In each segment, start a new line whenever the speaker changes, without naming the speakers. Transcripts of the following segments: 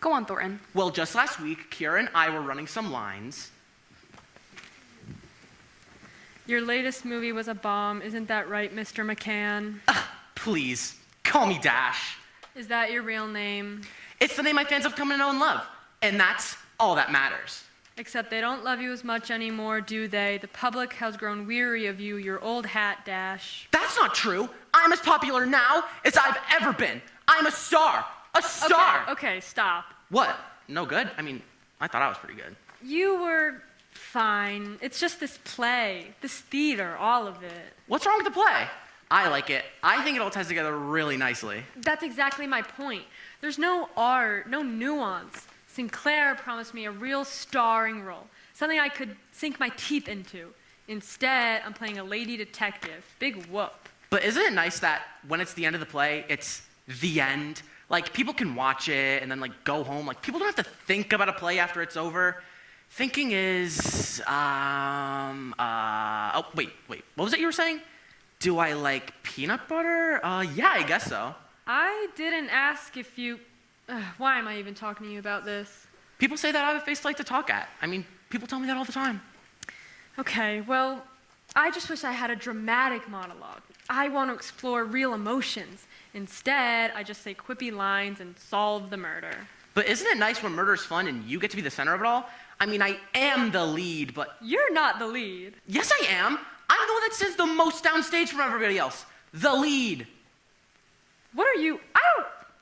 Go on, Thornton.
Well, just last week, Kira and I were running some lines.
Your latest movie was a bomb, isn't that right, Mr. McCann?
Please, call me Dash.
Is that your real name?
It's the name my fans have come to know and love, and that's all that matters.
Except they don't love you as much anymore, do they? The public has grown weary of you, your old hat, Dash.
That's not true. I'm as popular now as I've ever been. I'm a star. A star.
Okay, okay, stop.
What? No good? I mean, I thought I was pretty good.
You were fine. It's just this play, this theater, all of it.
What's wrong with the play? I like it. I think it all ties together really nicely.
That's exactly my point. There's no art, no nuance. Sinclair promised me a real starring role, something I could sink my teeth into. Instead, I'm playing a lady detective. Big whoop.
But isn't it nice that when it's the end of the play, it's the end? Like people can watch it and then like go home. Like people don't have to think about a play after it's over. Thinking is um uh oh wait wait what was it you were saying? Do I like peanut butter? Uh yeah I guess so.
I didn't ask if you. Ugh, why am I even talking to you about this?
People say that I have a face like to talk at. I mean people tell me that all the time.
Okay, well, I just wish I had a dramatic monologue. I want to explore real emotions. Instead, I just say quippy lines and solve the murder.
But isn't it nice when murder's fun and you get to be the center of it all? I mean I am the lead, but
You're not the lead.
yes I am. I'm the one that sits the most downstage from everybody else. The lead.
What are you? I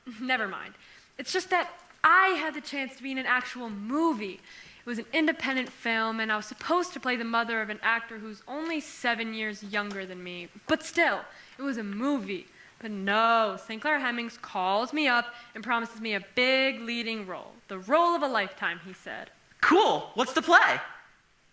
don't. Never mind. It's just that I had the chance to be in an actual movie. It was an independent film, and I was supposed to play the mother of an actor who's only seven years younger than me. But still, it was a movie. But no, St. Clair Hemmings calls me up and promises me a big leading role. The role of a lifetime, he said.
Cool. What's the play?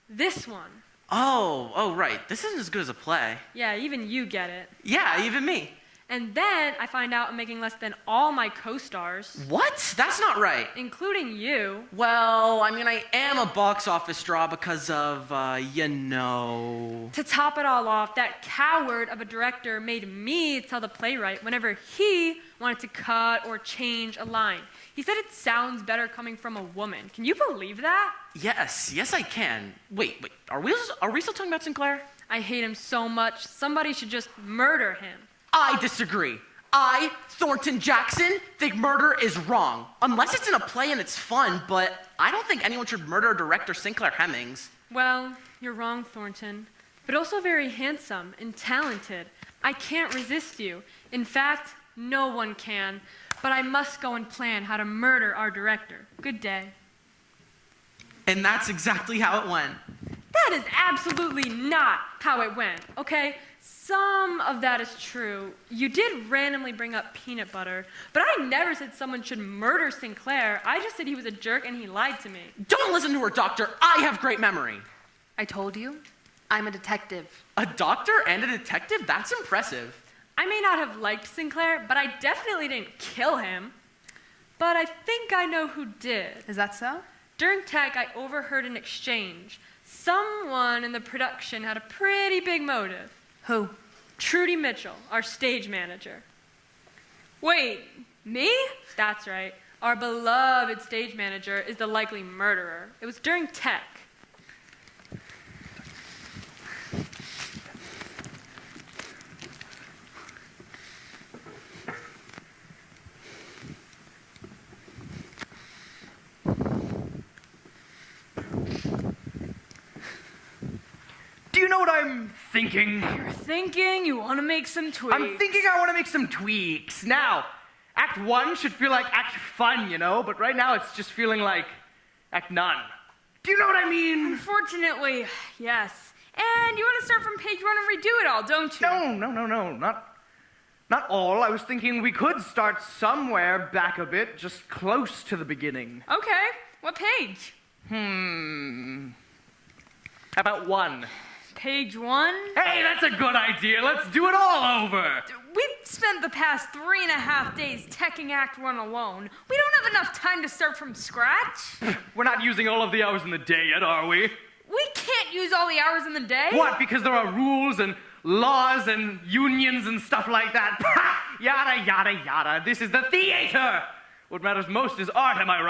This one.
Oh, oh, right. This isn't as good as a play.
Yeah, even you get it.
Yeah, even me.
And then I find out I'm making less than all my co stars,
What? That's not right.
including you.
Well, I mean, I am a box office draw because of, uh, you know.
To top it all off, that coward of a director made me tell the playwright whenever he wanted to cut or change a line. He said it sounds better coming from a woman. Can you believe that?
Yes, yes, I can. Wait, wait. Are we are we still talking about Sinclair?
I hate him so much. Somebody should just murder him.
I disagree. I, Thornton Jackson, think murder is wrong. Unless it's in a play and it's fun, but I don't think anyone should murder director Sinclair Hemmings.
Well, you're wrong, Thornton, but also very handsome and talented. I can't resist you. In fact, no one can. But I must go and plan how to murder our director. Good day.
And that's exactly how it went.
That is absolutely not how it went, okay? Some of that is true. You did randomly bring up peanut butter, but I never said someone should murder Sinclair. I just said he was a jerk and he lied to me.
Don't listen to her, doctor. I have great memory.
I told you, I'm a detective.
A doctor and a detective? That's impressive.
I may not have liked Sinclair, but I definitely didn't kill him. But I think I know who did.
Is that so?
During tech, I overheard an exchange. Someone in the production had a pretty big motive.
Who?
Trudy Mitchell, our stage manager. Wait, me? That's right. Our beloved stage manager is the likely murderer. It was during tech.
Do you know what I'm thinking?
You're thinking you want to make some tweaks.
I'm thinking I want to make some tweaks. Now, Act 1 should feel like Act Fun, you know? But right now it's just feeling like Act None. Do you know what I mean?
Unfortunately, yes. And you want to start from page one and redo it all, don't you?
No, no, no, no, not. Not all. I was thinking we could start somewhere back a bit, just close to the beginning.
Okay. What page?
Hmm. How about one?
Page one?
Hey, that's a good idea. Let's do it all over.
We've spent the past three and a half days teching Act One alone. We don't have enough time to start from scratch.
We're not using all of the hours in the day yet, are we?
We can't use all the hours in the day.
What? Because there are rules and laws and unions and stuff like that. yada, yada, yada. This is the theater. What matters most is art, am I right?